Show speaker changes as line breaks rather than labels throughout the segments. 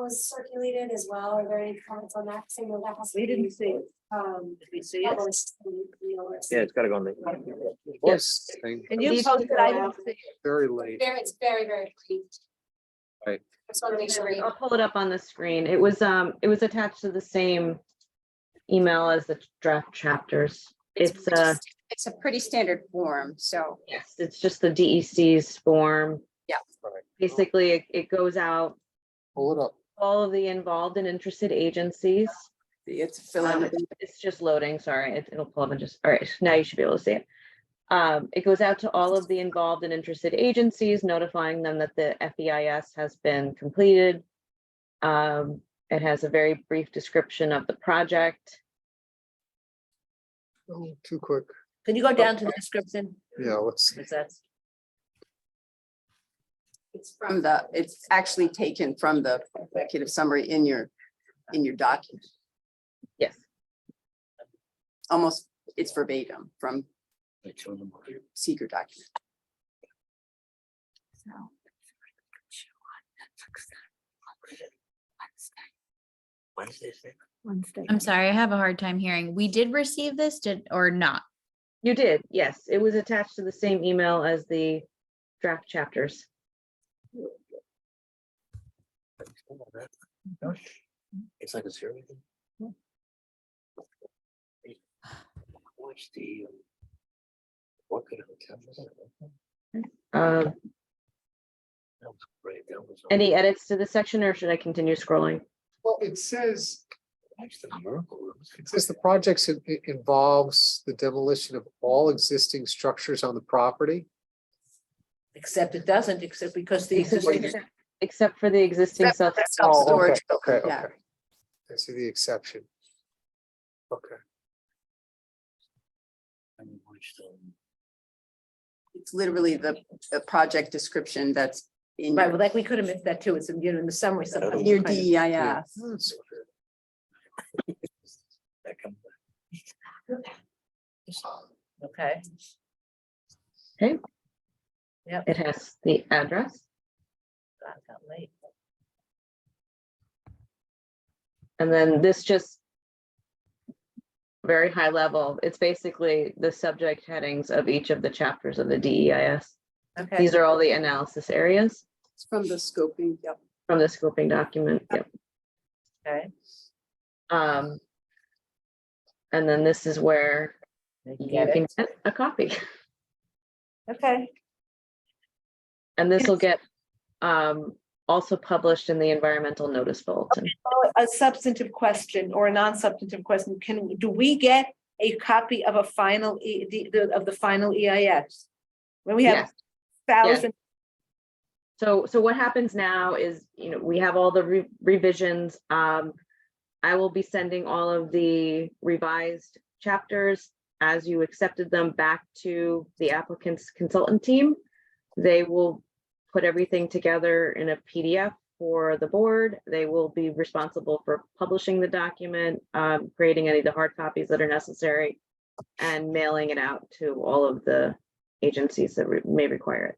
was circulated as well. Are there any comments on that? 'Cause I know that has to
We didn't
be,
see it.
um,
Did we see it?
published in the notice.
Yeah, it's gotta go on the. Yes.
And you posted, it, I didn't see it.
Very late.
Very, it's very, very brief.
Right.
I just want to make sure. we-
I'll pull it up on the screen. It was, um, it was attached to the same email as the draft chapters. It's, uh,
It's a pretty standard form, so.
yes, it's just the DEC's form.
Yeah.
Right.
Basically, it, it goes out,
Pull it up.
all of the involved and interested agencies.
It's
Um,
filling.
it's- It's just loading, sorry, it- it'll pull up and just, all right, now you should be able to see it. Um, it goes out to all of the involved and interested agencies notifying them that the FEIS has been completed. Um, it has a very brief description of the project.
Too quick.
Can you go down to the description?
Yeah, let's.
Because that's,
It's from the, it's actually taken from the executive summary in your, in your document,
Yes.
almost, it's verbatim from your secret document.
I'm sorry, I have a hard time hearing. We did receive this, did, or not?
You did, yes, it was attached to the same email as the draft chapters.
It's like a serial. thing. Watch the. um, What could a hotel was that?
Um,
That was great, that was.
any edits to the section or should I continue scrolling?
Well, it says,
Watch the miracle. rooms.
it says the projects in- i- involves the demolition of all existing structures on the property.
except it doesn't, except because the existing,
Except except for the existing self.
Oh, okay,
Self-storage,
Okay,
yeah.
okay. I see the exception. Okay.
And you watch the-
It's literally the, the project description that's in
right, well,
your,
like, we could have missed that too, it's in, you know, in the summary. sometimes
in
you
your E
kind of-
DEIS.
That's-
that come back.
Okay,
It has the address.
God, it got late.
And then this just very high level, it's basically the subject headings of each of the chapters of the DEIS.
Okay,
These are all the analysis areas
It's From the scoping, yep.
from the scoping document. Yep.
okay,
Um, and then this is where
you
you
get
can
it,
get a copy
okay.
and this will get um, also published in the environmental notice bulletin.
Oh, A substantive question or a non-substantive question, can, do we get a copy of a final, E- the- the- of the final EIS? When we have
Yes.
thousand,
So, so what happens now is, you know, we have all the re- revisions. Um, I will be sending all of the revised chapters as you accepted them back to the applicant's consultant team. They will put everything together in a PDF for the board. They will be responsible for publishing the document, um, creating any of the hard copies that are necessary and mailing it out to all of the agencies that re- may require it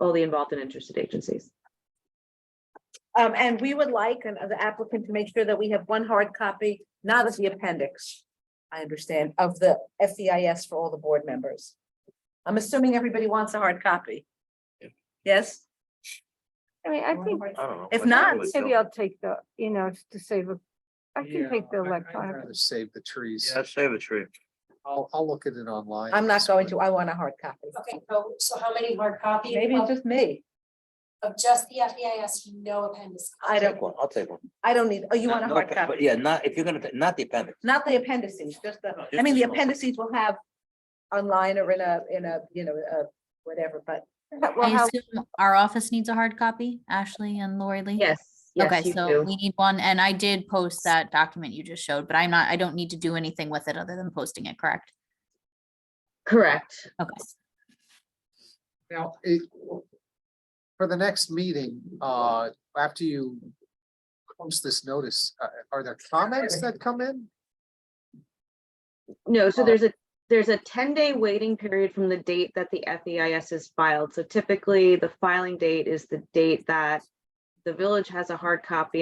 all the involved and interested agencies.
um, and we would like an- uh, the applicant to make sure that we have one hard copy, not of the appendix. I understand, of the FEIS for all the board members. I'm assuming everybody wants a hard copy.
Yeah.
Yes?
I mean, I think
I don't know.
If
like, I
not,
really
maybe
don't.
I'll take the, you know, to save a, I can take
Yeah,
the
I- I'd
electronic.
rather Save the trees.
Yeah, save a tree.
I'll, I'll look at it online.
I'm not going to, I want a hard copy.
Okay, so, so how many hard copy
Maybe it's
of,
just me.
of just the FEIS, no appendix?
I don't,
Take one, I'll take one.
I don't need, oh, you
Not-
want a
no
hard
appen-
copy?
but Yeah, not, if you're gonna, ta- not the appendix.
Not the appendices, just the,
No, just
I mean,
the
the
small-
appendices will have online or in a, in a, you know, a whatever, but
Well,
I
how,
assume our office needs a hard copy, Ashley and Lori Lee?
Yes, yes,
Okay,
you
so
do.
we need one, and I did post that document you just showed, but I'm not, I don't need to do anything with it other than posting it, correct?
Correct.
Okay.
Now, it, for the next meeting, uh, after you post this notice, uh, are there comments that come in?
No, so there's a, there's a ten day waiting period from the date that the FEIS is filed. So typically, the filing date is the date that the village has a hard copy